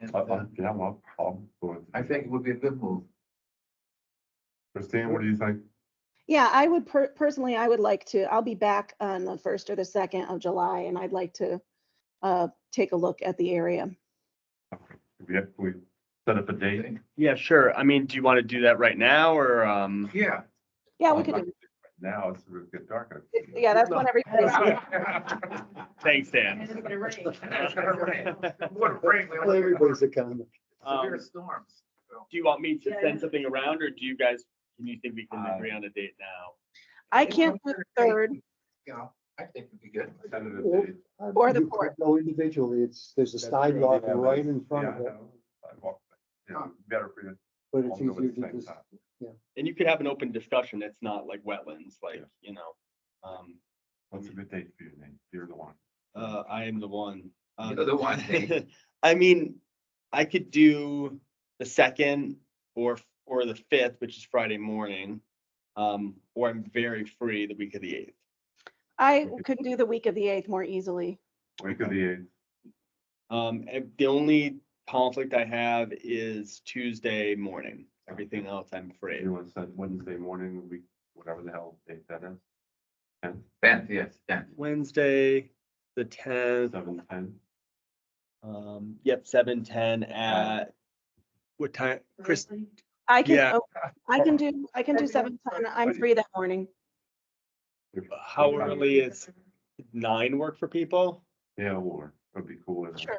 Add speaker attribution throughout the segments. Speaker 1: And
Speaker 2: Uh-huh.
Speaker 3: I,
Speaker 1: uh,
Speaker 3: I'm, yeah, I'm, up- I'm for it.
Speaker 1: I think it would be a good move.
Speaker 3: Christine, what do you think?
Speaker 4: Yeah, I would per- personally, I would like to, I'll be back on the first or the second of July and I'd like to uh, take a look at the area.
Speaker 3: We have, we set up a date.
Speaker 1: Right
Speaker 5: Yeah, sure. I mean, do you want to do that right now or, um,
Speaker 1: Yeah.
Speaker 4: Yeah,
Speaker 3: Um,
Speaker 4: we could,
Speaker 3: I
Speaker 4: do-
Speaker 3: Now it's gonna get darker.
Speaker 4: yeah, that's when everybody's here.
Speaker 5: thanks, Dan.
Speaker 1: What a break. we only got
Speaker 2: Everybody's accountable.
Speaker 1: Severe
Speaker 5: Um,
Speaker 1: storms. so.
Speaker 5: Do you want me to
Speaker 4: Yeah, yeah.
Speaker 5: send something around or do you guys, do you think we can
Speaker 3: Uh,
Speaker 5: agree on a date now?
Speaker 4: I can't do the third
Speaker 1: You know, I think it'd be good.
Speaker 3: Tentative date.
Speaker 4: Or the
Speaker 2: You
Speaker 4: port.
Speaker 2: Go individually, it's, there's a
Speaker 3: That's
Speaker 2: sidewalk
Speaker 3: true, yeah,
Speaker 2: right
Speaker 3: that's-
Speaker 2: in front
Speaker 3: yeah,
Speaker 2: of
Speaker 3: I
Speaker 2: it,
Speaker 3: know. Sidewalk, yeah, Better for you.
Speaker 2: but
Speaker 3: all
Speaker 2: it's
Speaker 3: go
Speaker 2: easier
Speaker 3: at the
Speaker 2: to
Speaker 3: same
Speaker 2: just,
Speaker 3: time.
Speaker 5: And you could have an open discussion. It's not like wetlands, like,
Speaker 3: Yeah.
Speaker 5: you know. Um,
Speaker 3: What's a good date for you, Nate? You're the one.
Speaker 5: uh, I am the one. Um,
Speaker 1: You're the one.
Speaker 5: I mean, I could do the second or, or the fifth, which is Friday morning. Um, or I'm very free the week of the eighth.
Speaker 4: I could do the week of the eighth more easily.
Speaker 3: Week of the eighth.
Speaker 5: Um, and the only conflict I have is Tuesday morning. Everything else I'm free.
Speaker 3: You want to set Wednesday morning, week, whatever the hell date that is? Ten,
Speaker 1: Ben, yes, Ben.
Speaker 5: Wednesday, the tenth,
Speaker 3: seven, ten?
Speaker 5: um, yep, seven, ten at what time? Chris,
Speaker 4: I can,
Speaker 5: Yeah.
Speaker 4: oh, I can do, I can do seven ten. I'm free that morning.
Speaker 3: If-
Speaker 5: how early is nine work for people?
Speaker 3: Yeah, or it'd be cool. if-
Speaker 4: Sure.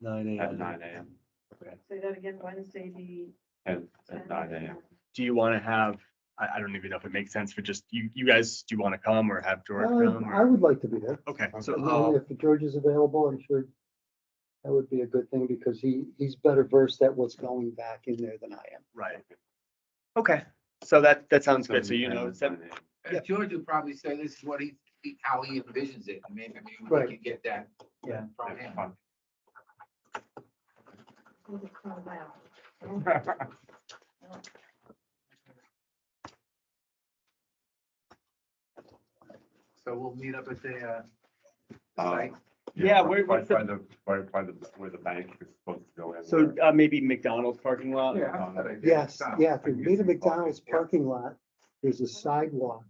Speaker 5: Nine
Speaker 3: At nine AM,
Speaker 5: Okay.
Speaker 6: Say that again, Wednesday, the.
Speaker 3: at, at nine AM.
Speaker 5: Do you want to have, I, I don't even know if it makes sense for just, you, you guys, do you want to come or have George come?
Speaker 2: uh, I I
Speaker 5: or-
Speaker 2: would like to be there.
Speaker 5: Okay, so, oh,
Speaker 2: Uh,
Speaker 5: I'll-
Speaker 2: If George is available, I'm sure that would be a good thing because he, he's better versed at what's going back in there than I am.
Speaker 5: right. Okay, so that, that sounds good. So you
Speaker 3: 7:10
Speaker 5: know,
Speaker 3: at
Speaker 5: seven,
Speaker 3: 9 a.m.
Speaker 1: And
Speaker 5: Yeah.
Speaker 1: George Uh, would probably say this is what he, he- how he envisions it. and Maybe we
Speaker 2: Right.
Speaker 1: could get that.
Speaker 5: Yeah.
Speaker 1: From
Speaker 3: That's
Speaker 1: him.
Speaker 3: fun.
Speaker 1: So we'll meet up at the, uh,
Speaker 3: Uh,
Speaker 1: site.
Speaker 5: Yeah,
Speaker 3: by-
Speaker 5: where-
Speaker 3: by-
Speaker 5: what's the-
Speaker 3: By the, by, by the, where the bank is supposed to go in.
Speaker 5: so uh, maybe McDonald's parking lot?
Speaker 1: Yeah, that's a good idea.
Speaker 2: uh, Yes,
Speaker 1: Sounds-
Speaker 2: yeah, if
Speaker 3: I
Speaker 2: you
Speaker 3: can get
Speaker 2: meet at
Speaker 3: some coffee,
Speaker 2: McDonald's
Speaker 3: yeah.
Speaker 2: parking lot, there's a sidewalk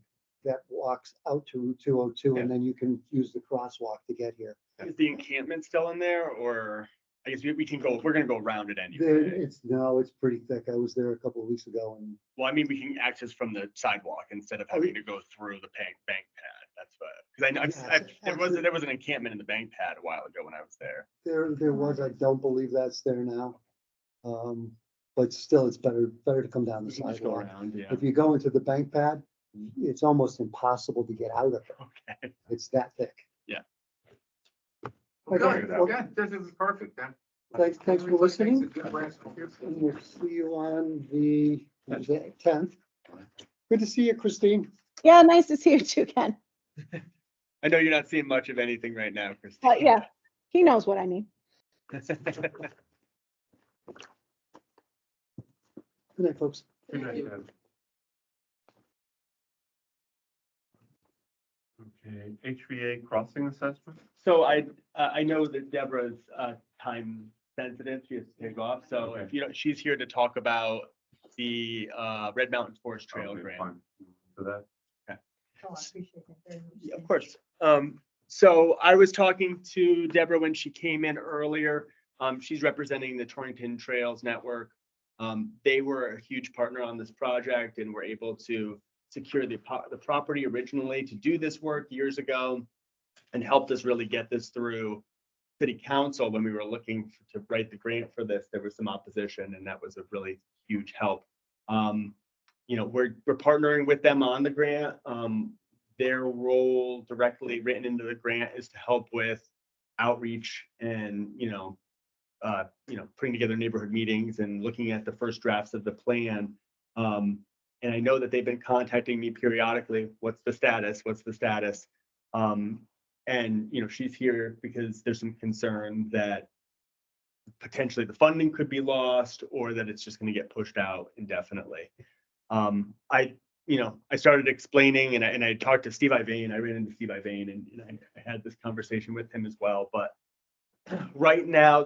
Speaker 2: that walks out to Route two oh two and then you can use the crosswalk to get here.
Speaker 5: Is the encampment still in there or, I guess we, we can go, we're gonna go around it
Speaker 2: There,
Speaker 5: anyway.
Speaker 2: it's, no, it's pretty thick. I was there a couple of weeks ago and
Speaker 5: Well, I mean, we can access from the sidewalk instead
Speaker 2: Oh,
Speaker 5: of having to go through the bank, bank pad, that's what, cause I know, I've-
Speaker 2: Yeah,
Speaker 5: I've-
Speaker 2: it's
Speaker 5: there was,
Speaker 2: actually-
Speaker 5: there was an encampment in the bank pad a while ago when I was there.
Speaker 2: There, there was, I don't believe that's there now. Um, but still, it's better, better to come down the
Speaker 5: We can just go
Speaker 2: sidewalk.
Speaker 5: around, yeah.
Speaker 2: If you go into the bank pad, it's almost impossible to get out of it.
Speaker 5: Okay.
Speaker 2: It's that thick.
Speaker 1: Well, Good,
Speaker 3: Okay.
Speaker 1: good. This is perfect then.
Speaker 2: Thanks, thanks for
Speaker 1: It's a
Speaker 2: listening.
Speaker 1: good
Speaker 2: And
Speaker 1: rest.
Speaker 2: we'll see you on the tenth. Good to see you, Christine.
Speaker 4: Yeah, nice to see you too, Ken.
Speaker 5: I know you're not seeing much of anything right now, Christine.
Speaker 4: But yeah, he knows what I mean.
Speaker 2: Good night, folks.
Speaker 3: Okay, HVA crossing assessment?
Speaker 5: So I, uh, I know that Deborah's, uh, time sensitive, she has to take off, so if
Speaker 3: Okay.
Speaker 5: you know, she's here to talk about the, uh, Red Mountain Forest Trail
Speaker 3: Okay,
Speaker 5: grant.
Speaker 3: fine. For that,
Speaker 6: Oh,
Speaker 5: Yeah, Of course. Um, so I was talking to Deborah when she came in earlier. Um, she's representing the Torrington Trails Network. Um, they were a huge partner on this project and were able to secure the, po- the property originally to do this work years ago and helped us really get this through city council when we were looking f- to write the grant for this. There was some opposition and that was a really huge help. Um, you know, we're, we're partnering with them on the grant. Um, their role directly written into the grant is to help with outreach and, you know, uh, you know, putting together neighborhood meetings and looking at the first drafts of the plan. Um, and I know that they've been contacting me periodically, what's the status, what's the status? Um, and, you know, she's here because there's some concern that potentially the funding could be lost or that it's just gonna get pushed out indefinitely. Um, I you know, I started explaining and I, and I talked to Steve Ivane, I ran into Steve Ivane and, and I I had this conversation with him as well, but right now